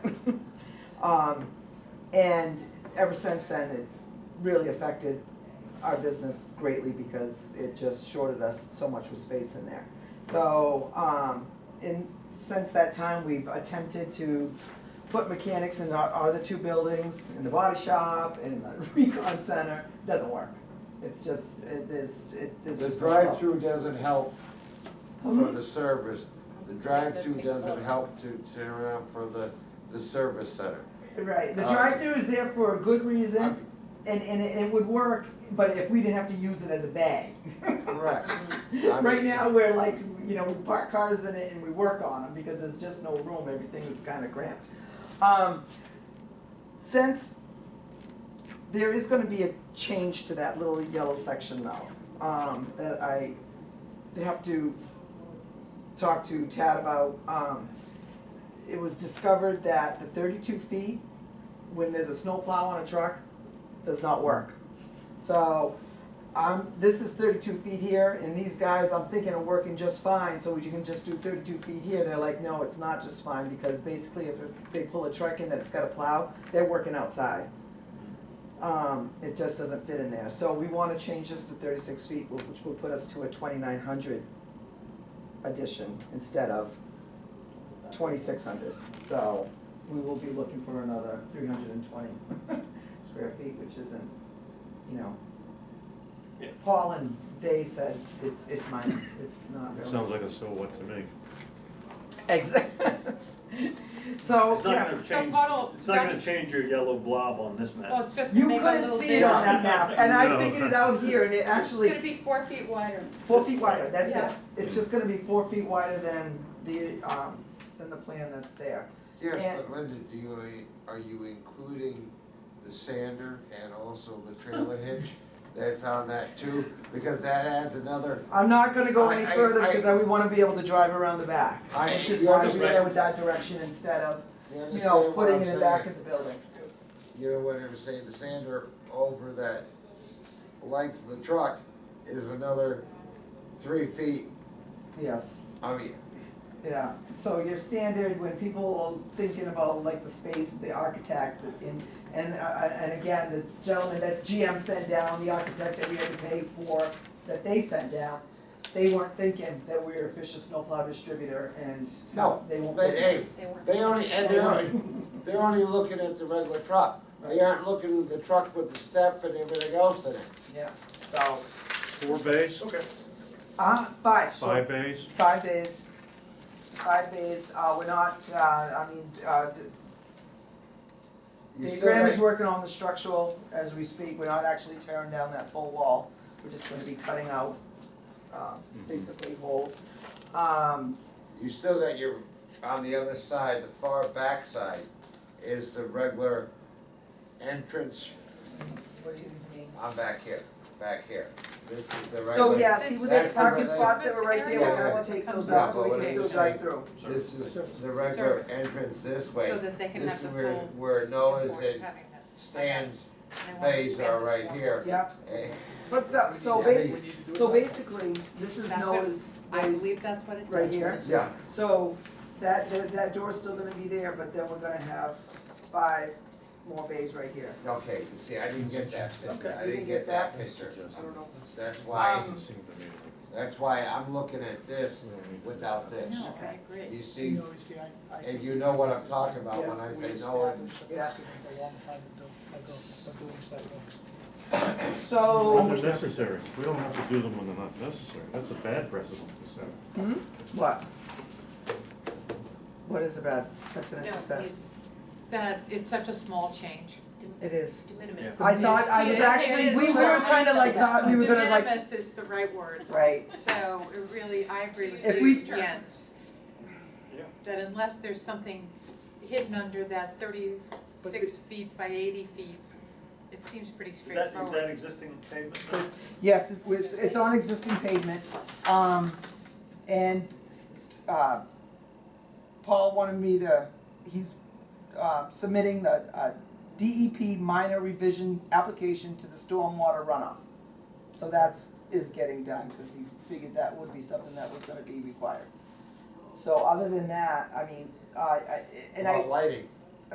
Um, and ever since then, it's really affected our business greatly because it just shorted us so much with space in there. So, um, in, since that time, we've attempted to put mechanics in our, our other two buildings, in the body shop, in the recon center, doesn't work. It's just, it, there's, it, there's The just no help. drive-through doesn't help for the service, the drive-through It does take doesn't a help to turn around for the, the service center. Right, the Uh, drive-through is there for a good Uh, reason, and, and it it would work, but if we didn't have to use it as a bag. Correct. I Right mean- now, we're like, you know, we park cars in it and we work on them, because there's just no room, everything is kinda cramped. Um, since there is gonna be a change to that little yellow section though, um, that I have to talk to Tad about, um, it was discovered that the thirty-two feet, when there's a snowplow on a truck, does not work. So, I'm, this is thirty-two feet here, and these guys, I'm thinking are working just fine, so you can just do thirty-two feet here, they're like, no, it's not just fine, because basically if they pull a truck in that it's got a plow, they're working outside. Um, it just doesn't fit in there, so we wanna change this to thirty-six feet, wh- which will put us to a twenty-nine hundred addition instead of twenty-six hundred, so we will be looking for another three hundred and twenty square feet, which isn't, you know. Yeah. Paul and Dave said it's, it's mine, it's not It really. sounds like a so what to me. Exactly. So, It's not yeah, gonna So change, Oh, Puddle, it's not gonna that, change your yellow blob on this well, map. it's just you gonna make a couldn't little see bit it on that of- map, and I No. figured it out here, and it It's gonna actually, be four feet wider. four feet wider, that's it. Yeah. It's just gonna be four feet wider than the, um, than the plan that's there. Yes, And- but Linda, do you, are you including the sander and also the trailer hitch that's on that too? Because that adds another, I'm not gonna go any I- I- further, I- because I would wanna be able to drive around the back, I- which is you why we understand- went that direction instead of, you you know, understand what putting I'm it in the back saying? of the building. You know what I'm saying, the sander over that length of the truck is another three feet, Yes. I mean, Yeah, so your standard, when people are thinking about like the space, the architect, and, and, uh, uh, and again, the gentleman that GM sent down, the architect that we had to pay for, that they sent down, they weren't thinking that we were a Fisher snowplow distributor and No, they won't. they, put- hey, They weren't. they only, and they're, only- they're only looking at the regular truck. They aren't looking at the truck with the step and everything else in it. Yeah, so, Four bays, okay. uh, five, so five bays, Five days, five days, uh, we're not, uh, I mean, uh, You Dave still Graham got- is working on the structural as we speak, we're not actually tearing down that full wall, we're just gonna be cutting out, um, Mm-hmm. basically holes. Um, You still got your, on the other side, the far back side is the regular entrance, what do you mean? I'm back here, back here. This is the So, regular, yeah, see, with these That's the parking right- spots that were right there, we're gonna have to take those out so we can Yeah, still but drive through. this is the regular Service. entrance this So way. that they can This have is the where, full. where Noah's support and having this. Stan's And they want to bays expand are this right wall. here. Yeah, Eh, but so, so Yeah, they- basi- so basically, this is That's what- Noah's, I believe that's what it's. Right here. Yeah, So that, that, that door's still gonna be there, but then we're gonna have five more bays right here. Okay, you see, I didn't get that picture, I You didn't get that picture. I don't know. That's why, Um, Seemed to me that's why I'm looking at this like we don't need to- without this. No, I agree. You see, You know, you see, I, I. and you know what I'm talking about when I we say no, established a Yeah. precedent a long time ago, ago, for doing sidewalks. Oh. When So, they're necessary, we don't have to do them when they're not necessary, that's a bad precedent to set. what? What is about precedent to No, set? he's, that, it's such a small change. It is. De minimis. I thought, I was Yeah, it actually, is. we were kinda like, thought we were gonna De like, minimis is the right word, right, so it really, I agree If with we- you, Jens. Yeah. That unless there's something hidden under that thirty-six feet by eighty feet, it seems pretty Is that, is that straightforward. existing pavement now? yes, it- it's, it's on existing pavement, um, and, uh, Paul wanted me to, he's, uh, submitting the, uh, DEP minor revision application to the stormwater runoff. So that's, is getting done, cause he figured that would be something that was gonna be required. So other than that, I mean, I, I, and I. about lighting,